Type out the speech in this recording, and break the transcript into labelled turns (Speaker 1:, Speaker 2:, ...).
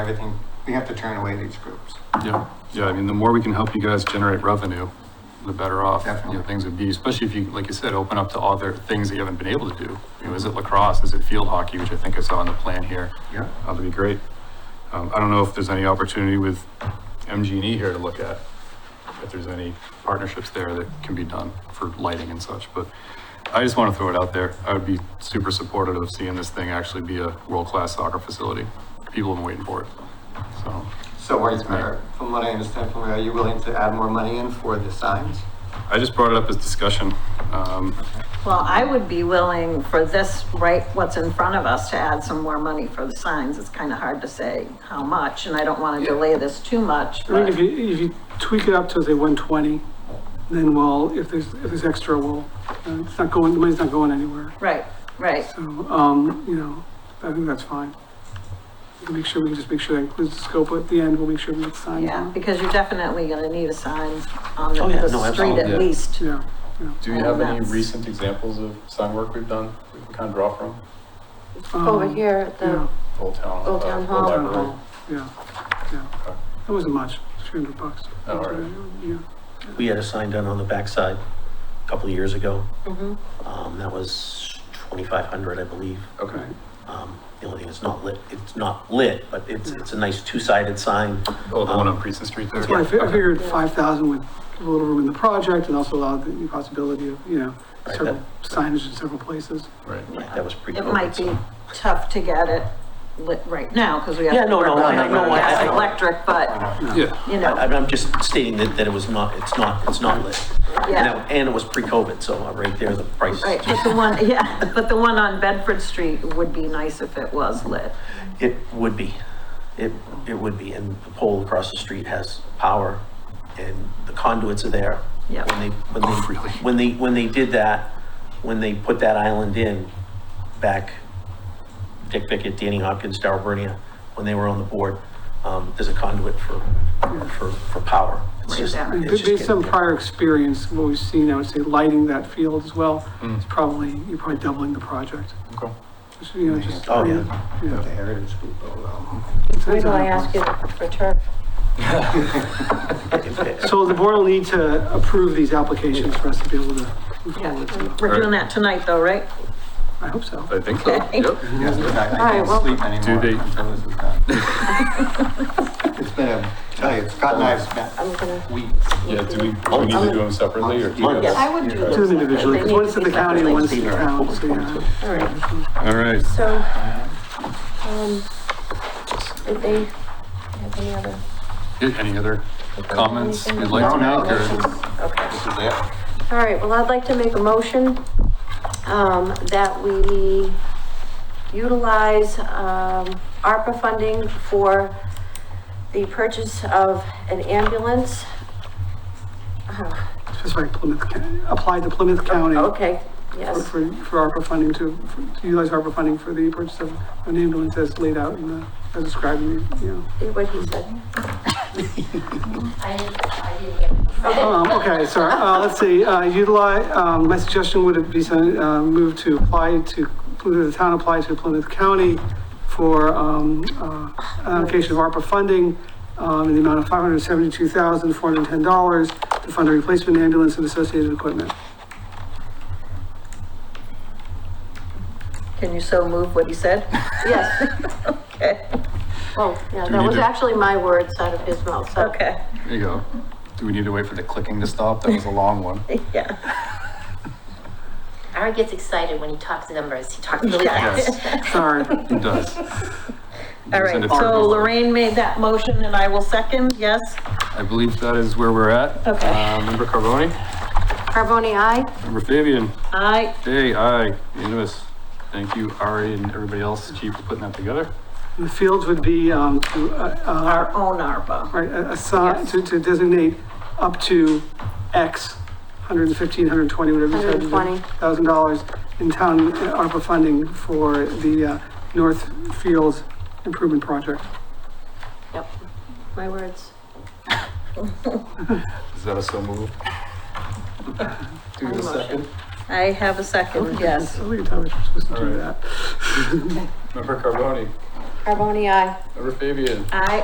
Speaker 1: everything, we have to turn away these groups.
Speaker 2: Yeah, yeah, I mean, the more we can help you guys generate revenue, the better off, you know,
Speaker 1: Definitely.
Speaker 2: things would be, especially if you, like you said, open up to other things that you haven't been able to do. You know, is it lacrosse, is it field hockey, which I think I saw on the plan here?
Speaker 1: Yeah.
Speaker 2: Uh, That'd be great. Um, I don't know if there's any opportunity with MGE E here to look at, if there's any partnerships there that can be done for lighting and such, but I just want to throw it out there. I would be super supportive of seeing this thing actually be a world-class soccer facility. People have been waiting for it, so.
Speaker 1: So what's, from what I understand from you, are you willing to add more money in for the signs?
Speaker 2: I just brought it up as discussion. Um,
Speaker 3: Well, I would be willing for this, right, what's in front of us, to add some more money for the signs. It's kind of hard to say how much, and I don't want to delay this too much,
Speaker 4: I mean, if
Speaker 3: but
Speaker 4: you, if you tweak it up to say one twenty, then we'll, if there's, if there's extra, we'll, uh, it's not going, the money's not going anywhere.
Speaker 3: right, right.
Speaker 4: So, um, you know, I think that's fine. We can Make sure, we can just make sure that includes the scope at the end, we'll make sure we get signed
Speaker 3: Yeah,
Speaker 4: on.
Speaker 3: because you're definitely going to need a sign on the
Speaker 5: Oh, yeah,
Speaker 3: the
Speaker 5: no,
Speaker 3: street
Speaker 5: absolutely.
Speaker 3: at least.
Speaker 4: Yeah, yeah.
Speaker 6: Do you have
Speaker 7: Oh,
Speaker 6: any recent examples of sign work we've done, we can kind of draw from?
Speaker 7: Over
Speaker 4: Um,
Speaker 7: here at
Speaker 4: Yeah,
Speaker 7: the
Speaker 6: Old Town.
Speaker 7: Old
Speaker 6: uh,
Speaker 7: Town Hall.
Speaker 4: town
Speaker 6: Library.
Speaker 4: hall, yeah, yeah. That wasn't much, three hundred bucks.
Speaker 6: Oh, all right.
Speaker 4: Yeah,
Speaker 5: We had a sign done on the backside a couple of years ago.
Speaker 7: Mhm.
Speaker 3: Mm-hmm.
Speaker 5: Um, that was twenty-five hundred, I believe.
Speaker 6: Okay,
Speaker 5: Um, the only thing is not lit, it's not lit, but it's,
Speaker 3: Mm.
Speaker 5: it's a nice two-sided sign.
Speaker 2: oh, the one on Preston Street there.
Speaker 4: That's why I fi- I
Speaker 2: Okay.
Speaker 4: figured five thousand would give a little room in the project and also allow the possibility of, you know,
Speaker 5: Right,
Speaker 4: several
Speaker 5: that-
Speaker 4: signage in several places.
Speaker 2: Right.
Speaker 5: Like, That was pretty.
Speaker 3: It might be tough to get it lit right now, because we have.
Speaker 5: Yeah, no, no,
Speaker 3: to work on
Speaker 5: no, no, no, I-
Speaker 3: gas and
Speaker 5: I-
Speaker 3: Electric, but,
Speaker 2: Yeah,
Speaker 3: you
Speaker 5: I,
Speaker 3: know,
Speaker 5: I'm just stating that, that it was not, it's not, it's not lit. And
Speaker 3: Yeah.
Speaker 5: that- And it was pre-COVID, so uh, right there, the price.
Speaker 3: right, but the one, yeah, but the one on Bedford Street would be nice if it was lit.
Speaker 5: It would be. It, it would be, and the pole across the street has power, and the conduits are there.
Speaker 3: Yep.
Speaker 5: When they, when they,
Speaker 2: Oh, really?
Speaker 5: when they, when they did that, when they put that island in, back, Dick Vickett, Danny Hopkins, Darryl Bernia, when they were on the board, um, there's a conduit for, for, for power. It's
Speaker 3: Right
Speaker 5: just-
Speaker 3: there.
Speaker 5: it's just
Speaker 4: Based on
Speaker 5: getting-
Speaker 4: prior experience, what we've seen, I would say lighting that field as well, is probably, you're probably doubling the project.
Speaker 2: okay.
Speaker 4: Just, You know, just.
Speaker 5: Oh, yeah.
Speaker 1: The heritage oh, people, though.
Speaker 7: Wait till I ask you for turf.
Speaker 5: If it-
Speaker 4: So the board will need to approve these applications for us to be able to move
Speaker 3: Yeah.
Speaker 4: forward. so
Speaker 3: We're doing that tonight though, right?
Speaker 4: I hope so.
Speaker 2: I think so,
Speaker 3: Okay.
Speaker 2: yep.
Speaker 1: Yes, but I, I
Speaker 7: right, well-
Speaker 1: can't sleep anymore
Speaker 2: they-
Speaker 1: until this is done. It's been a, tell you, Scott and I have
Speaker 7: I'm
Speaker 1: spent
Speaker 7: gonna.
Speaker 1: weeks.
Speaker 6: yeah, do we, do we need to do them separately, or? do you
Speaker 5: Months.
Speaker 6: guys-
Speaker 7: I would do
Speaker 4: Do
Speaker 7: those.
Speaker 4: them individually, because one's at the county and one's at the town, so yeah.
Speaker 7: All right,
Speaker 2: All right,
Speaker 7: so, um, did they have any other?
Speaker 2: Yeah, any other comments
Speaker 7: anything?
Speaker 2: you'd like to
Speaker 1: No, no,
Speaker 2: make, or-
Speaker 7: Motions? Okay.
Speaker 1: This is it.
Speaker 7: All right, well, I'd like to make a motion, um, that we utilize, um, ARPA funding for the purchase of an ambulance. Uh,
Speaker 4: Just like Plymouth, County- apply to Plymouth County.
Speaker 7: Okay,
Speaker 4: for,
Speaker 7: yes,
Speaker 4: for for ARPA funding to, for- to utilize ARPA funding for the purchase of an ambulance as laid out in the, as described in the, you know.
Speaker 7: what he said.
Speaker 8: I didn't, I didn't get it.
Speaker 4: Um, okay, sorry, uh, let's see, uh, utilize, um, my suggestion would be, to, uh, move to apply to, the town apply to Plymouth County for, um, uh, allocation of ARPA funding, um, in the amount of five hundred seventy-two thousand, four hundred and ten dollars to fund a replacement ambulance and associated equipment.
Speaker 3: Can you so move what he said?
Speaker 7: Yes,
Speaker 3: Okay,
Speaker 7: well, yeah,
Speaker 2: Do we
Speaker 7: that
Speaker 2: need
Speaker 7: was
Speaker 2: to-
Speaker 7: actually my words out of his mouth, so.
Speaker 3: okay,
Speaker 2: there you go. Do we need to wait for the clicking to stop? That was a long one.
Speaker 3: yeah.
Speaker 8: Aaron gets excited when he talks numbers. He talks really
Speaker 2: Yes.
Speaker 8: fast.
Speaker 4: Sorry,
Speaker 2: It does.
Speaker 3: All
Speaker 2: Send
Speaker 3: right,
Speaker 2: it
Speaker 3: so
Speaker 2: forward.
Speaker 3: Lorraine made that motion and I will second, yes?
Speaker 2: I believe that is where we're at.
Speaker 3: Okay.
Speaker 2: Uh, Member Carboni,
Speaker 7: Carboni, aye?
Speaker 2: member Fabian,
Speaker 3: I,
Speaker 2: Day, aye, unanimous. Thank you, Ari and everybody else, chief, for putting that together.
Speaker 4: the fields would be, um, to, uh, uh,
Speaker 3: our own ARPA.
Speaker 4: Right, a- assign, to, to designate up to X, 115, 120, whatever you said.
Speaker 7: 120.
Speaker 4: Thousand dollars in town uh, ARPA funding for the uh, North Fields Improvement Project.
Speaker 7: Yep, my words.
Speaker 2: Is that a so move?
Speaker 1: Do the second.
Speaker 3: I have a second, yes.
Speaker 4: I think Thomas was supposed to do
Speaker 2: Alright.
Speaker 4: that.
Speaker 2: Member Carboni,
Speaker 9: Carboni, aye.
Speaker 2: Member Fabian?
Speaker 3: I